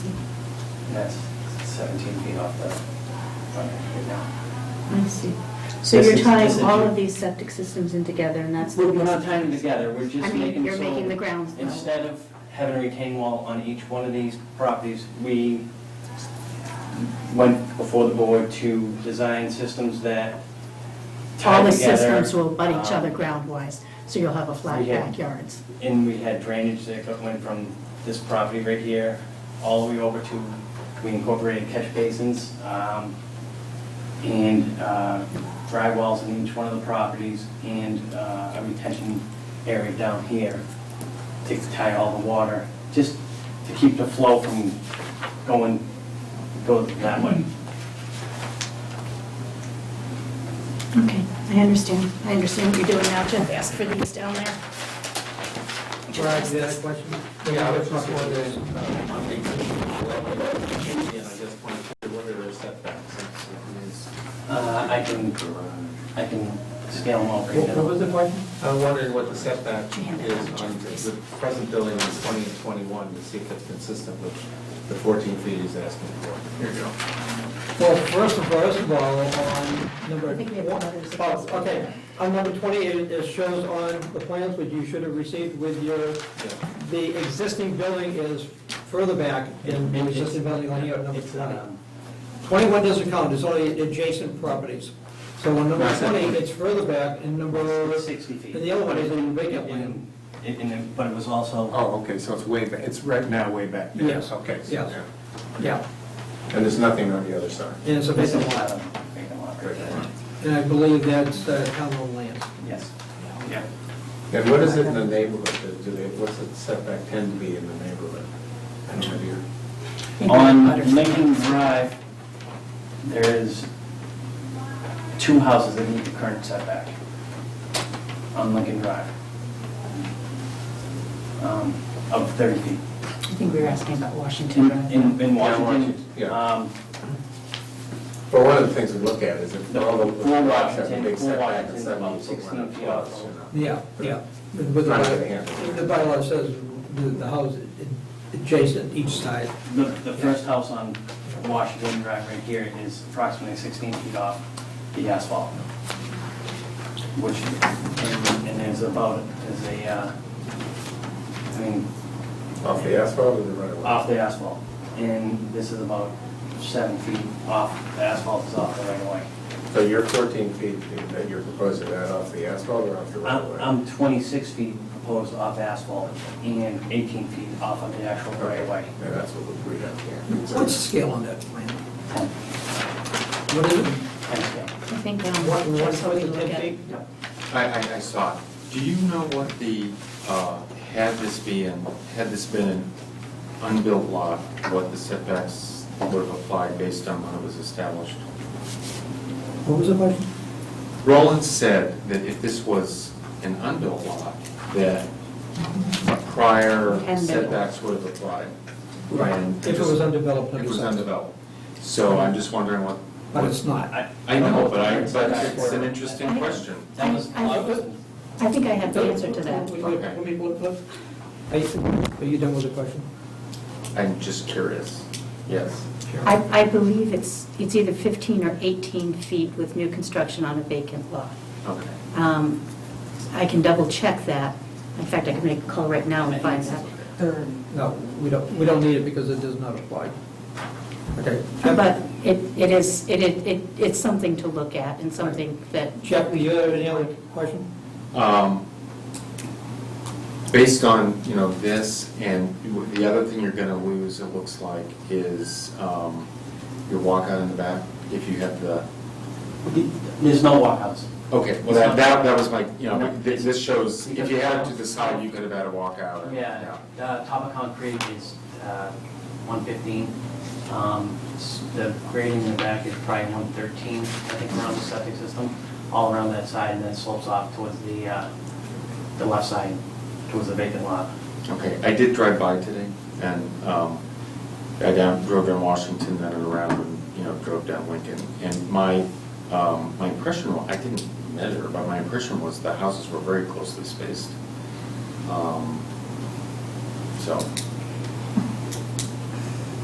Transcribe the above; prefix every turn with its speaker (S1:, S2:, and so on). S1: That's seventeen feet off the front end now.
S2: I see. So
S1: This is-
S2: you're
S1: this
S2: tying
S1: is
S2: all
S1: your-
S2: of these septic systems in together, and that's the
S1: We're we're
S2: reason?
S1: not tying them together, we're
S2: I
S1: just
S2: mean,
S1: making
S2: you're
S1: so-
S2: making the grounds level.
S1: Instead of having a retaining wall on each one of these properties, we went before the board to design systems that
S2: All
S1: tie
S2: the
S1: together.
S2: systems will butt each other
S1: um,
S2: ground-wise, so you'll have a flat
S1: we had-
S2: backyards.
S1: And we had drainage that go- went from this property right here, all the way over to, we incorporated catch basins, um, and, uh, dry wells in each one of the properties, and, uh, a retention area down here to tie all the water, just to keep the flow from going, go that way.
S2: Okay, I understand. I understand what you're doing now, Jeff. Ask for these down there.
S3: Brad, you had a question?
S4: Yeah, I was just wondering, uh, on the existing dwelling, and I just wanted to wonder their setbacks. since it is-
S1: Uh, I can, I can scale them all right
S4: What what
S1: now.
S4: was the question? I wondered what the setback is on the present building on twenty and twenty-one, to see if it's consistent with the fourteen feet he's asking for. Here you go.
S3: Well, first of, first of all, on number.
S2: I think we have
S3: one-
S2: others.
S3: Oh, okay, on number twenty, it, it shows on the plans which you should have received with your, the existing building is further back in the existing building on here, number
S1: It's,
S3: twenty.
S4: uh,
S1: um,
S3: Twenty-one doesn't count, it's only adjacent properties. So on number
S1: Not that
S3: twenty,
S1: one.
S3: it's further back, and number,
S1: It's
S3: and
S1: 60 feet.
S3: the other one is in vacant land.
S1: And- and it- But it was also,
S5: Oh, okay, so it's way, ba- it's right now way back there.
S3: Yes.
S5: Okay. so-
S3: Yeah. Yeah,
S4: And there's nothing on the other side.
S3: and it's a
S1: this
S3: vacant
S1: is
S3: lot,
S1: uh, vacant lot right there.
S3: and I believe that's uh, town owned land.
S1: Yes. Yeah.
S4: And what is it in the neighborhood? Do they, what's the setback tend to be in the neighborhood? I don't know, do you?
S1: On Lincoln Drive, there is two houses that meet the current setback on Lincoln Drive. Um, Of 30 feet.
S2: I think we were asking about Washington
S1: In- In,
S2: Drive.
S1: in
S4: Yeah,
S1: Washington,
S4: Washington, yeah.
S1: um,
S4: But one of the things we look at is if
S1: The
S4: all the
S1: full
S4: lots have a big
S1: Washington- full
S4: setback,
S1: Washington
S4: it's seventy
S1: is
S4: foot
S1: 16
S4: line
S1: feet
S4: plus,
S1: off.
S4: you know.
S3: Yeah, yeah. With the
S4: Not
S3: bylaw-
S4: gonna happen.
S3: The bylaw says the the house i- adjacent each side.
S1: the, the first house on Washington Drive right here is approximately 16 feet off the asphalt, which, and- and there's about, is a, uh, I mean,
S4: Off the asphalt or the right of way?
S1: off the asphalt. And this is about seven feet off, the asphalt is off the right of way.
S4: So you're 14 feet that you're proposing that off the asphalt or off the right
S1: I'm,
S4: of way?
S1: I'm 26 feet proposed off asphalt and 18 feet off of the actual right of way.
S4: Yeah, that's what we have here.
S3: What's the scale on that plan?
S1: Ten-
S3: What is it?
S1: ten scale.
S2: I think um,
S3: What- what-
S2: that's how we
S3: what-
S2: look at it.
S6: I, I, I saw it. Do you know what the, uh, had this been, had this been an unbuilt lot, what the setbacks would have applied based on when it was established?
S3: What was the question?
S6: Roland said that if this was an unbuilt lot, that prior
S2: Hadn't been.
S6: setbacks would have applied. And
S3: If it was undeveloped.
S6: It
S3: it'd be
S6: was
S3: something.
S6: undeveloped. So I'm just wondering what.
S3: But it's not.
S1: I-
S6: I know, but I, but it's an interesting question.
S1: That was,
S2: I- I- I think I have the answer to that.
S3: Wait, wait,
S6: Okay.
S3: let me- let- let- Are you are you done with the question?
S6: I'm just curious. Yes.
S2: I, I believe it's, it's either 15 or 18 feet with new construction on a vacant lot.
S6: Okay.
S2: Um, I can double-check that. In fact, I can make a call right now and find that.
S3: No, we don't, we don't need it because it does not apply. Okay. Jeff-
S2: But it, it is, it, it, it- it's something to look at and something that.
S3: Jeff, do you have any other question?
S6: Um, Based on, you know, this and the other thing you're gonna lose, it looks like, is um, your walkout in the back, if you have the,
S1: there's no walkouts.
S6: okay, well, that, that that was my, you know, this this shows, if you had it to the side, you could have had a walkout. and-
S1: Yeah, the top of concrete is uh, 115. Um, s- The grading in the back is probably 113, I think, around the septic system, all around that side, and then slopes off towards the, uh, the left side, towards the vacant lot.
S6: Okay, I did drive by today, and um, I down, drove down Washington, then around, and, you know, drove down Lincoln. And my, um, my impression, wa- I didn't measure, but my impression was the houses were very closely spaced. Um, So,